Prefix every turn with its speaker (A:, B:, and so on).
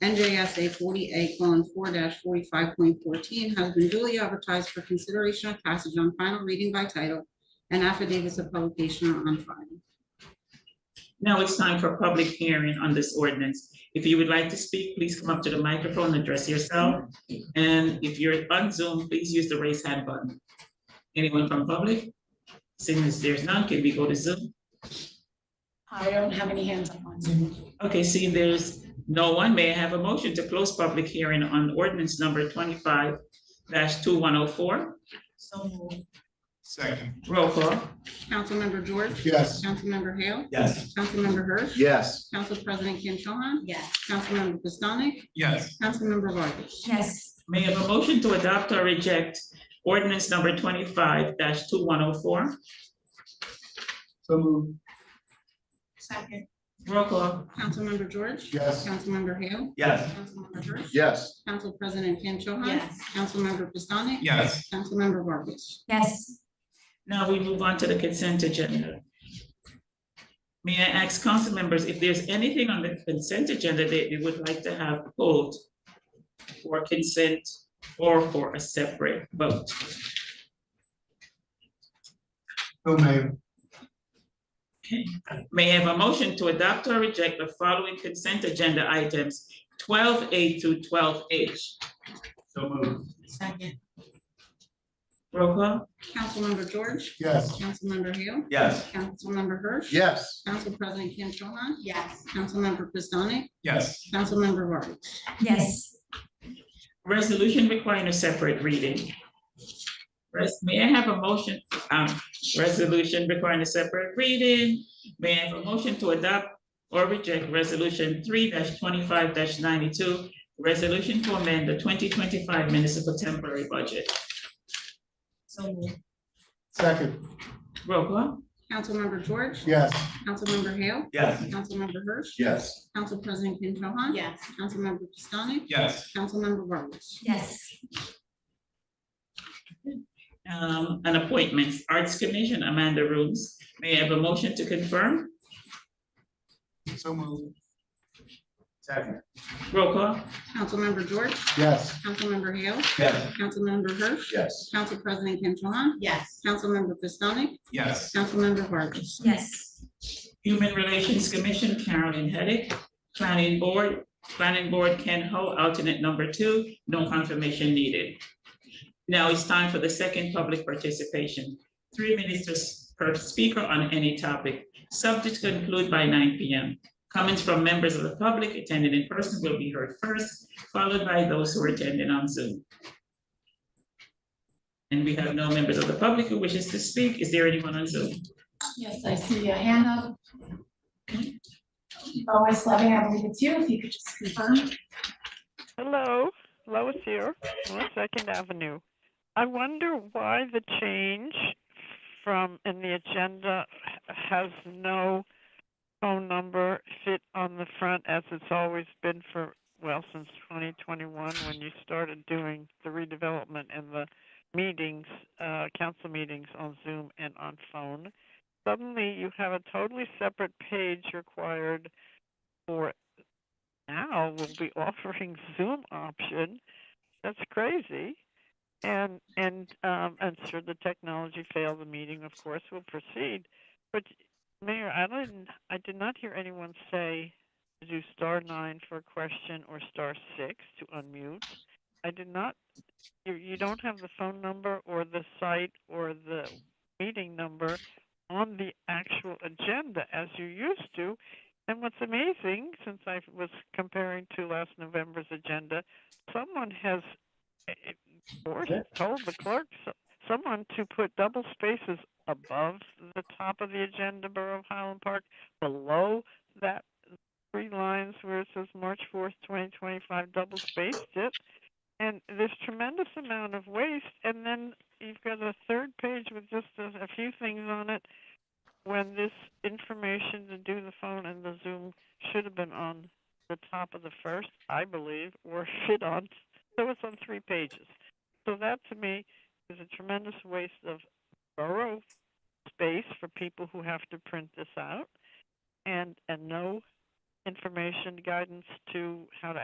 A: NJSA forty-eight colon four forty-five point fourteen has been duly advertised for consideration of passage on final reading by title and affidavits of publication are on file.
B: Now it's time for public hearing on this ordinance. If you would like to speak, please come up to the microphone, address yourself. And if you're on Zoom, please use the raise hand button. Anyone from public? Seeing as there's none, can we go to Zoom?
C: I don't have any hands up on Zoom.
B: Okay, seeing there's no one, may I have a motion to close public hearing on ordinance number twenty-five two one oh four?
C: So moved.
D: Second.
B: Roll call.
A: Councilmember George.
D: Yes.
A: Councilmember Hale.
D: Yes.
A: Councilmember Hirsch.
D: Yes.
A: Council President Kim Cho Han.
C: Yes.
A: Councilmember Pistonik.
D: Yes.
A: Councilmember Vargas.
C: Yes.
B: May I have a motion to adopt or reject ordinance number twenty-five two one oh four?
D: So moved.
C: Second.
B: Roll call.
A: Councilmember George.
D: Yes.
A: Councilmember Hale.
D: Yes.
A: Councilmember Hirsch.
D: Yes.
A: Council President Kim Cho Han.
C: Yes.
A: Councilmember Pistonik.
D: Yes.
A: Councilmember Vargas.
C: Yes.
B: Now we move on to the consent agenda. May I ask council members if there's anything on the consent agenda that they would like to have pulled for consent or for a separate vote?
D: So moved.
B: May I have a motion to adopt or reject the following consent agenda items, twelve A to twelve H?
D: So moved.
C: Second.
B: Roll call.
A: Councilmember George.
D: Yes.
A: Councilmember Hale.
D: Yes.
A: Councilmember Hirsch.
D: Yes.
A: Council President Kim Cho Han.
C: Yes.
A: Councilmember Pistonik.
D: Yes.
A: Councilmember Vargas.
C: Yes.
B: Resolution requiring a separate reading. Res- May I have a motion, um, resolution requiring a separate reading? May I have a motion to adopt or reject resolution three twenty-five ninety-two? Resolution to amend the twenty twenty-five municipal temporary budget.
C: So moved.
D: Second.
B: Roll call.
A: Councilmember George.
D: Yes.
A: Councilmember Hale.
D: Yes.
A: Councilmember Hirsch.
D: Yes.
A: Council President Kim Cho Han.
C: Yes.
A: Councilmember Pistonik.
D: Yes.
A: Councilmember Vargas.
C: Yes.
B: Um, and appointments, Arts Commission, Amanda Rooms. May I have a motion to confirm?
D: So moved. Second.
B: Roll call.
A: Councilmember George.
D: Yes.
A: Councilmember Hale.
D: Yes.
A: Councilmember Hirsch.
D: Yes.
A: Council President Kim Cho Han.
C: Yes.
A: Councilmember Pistonik.
D: Yes.
A: Councilmember Vargas.
C: Yes.
B: Human Relations Commission, Carolyn Hedick. Planning Board, Planning Board, Ken Ho, alternate number two, no confirmation needed. Now it's time for the second public participation. Three minutes to s- per speaker on any topic, subject to conclude by nine P M. Comments from members of the public attending in person will be heard first, followed by those who are attending on Zoom. And we have no members of the public who wishes to speak. Is there anyone on Zoom?
C: Yes, I see a hand up. Lois Levy, I believe it's you, if you could just confirm.
E: Hello, Lois here, on Second Avenue. I wonder why the change from, in the agenda h- has no phone number fit on the front as it's always been for, well, since 2021, when you started doing the redevelopment and the meetings, uh, council meetings on Zoom and on phone. Suddenly, you have a totally separate page required for now will be offering Zoom option. That's crazy. And and um, and should the technology fail, the meeting, of course, will proceed. But Mayor, I didn't, I did not hear anyone say to do star nine for a question or star six to unmute. I did not. You you don't have the phone number or the site or the meeting number on the actual agenda as you used to. And what's amazing, since I was comparing to last November's agenda, someone has eh, eh, forced, told the clerk, so- someone to put double spaces above the top of the agenda, Borough of Highland Park, below that three lines where it says March fourth, twenty twenty-five, double spaced it. And there's tremendous amount of waste, and then you've got a third page with just a, a few things on it when this information to do the phone and the Zoom should have been on the top of the first, I believe, or fit on, so it's on three pages. So that to me is a tremendous waste of borough space for people who have to print this out and, and no information guidance to how to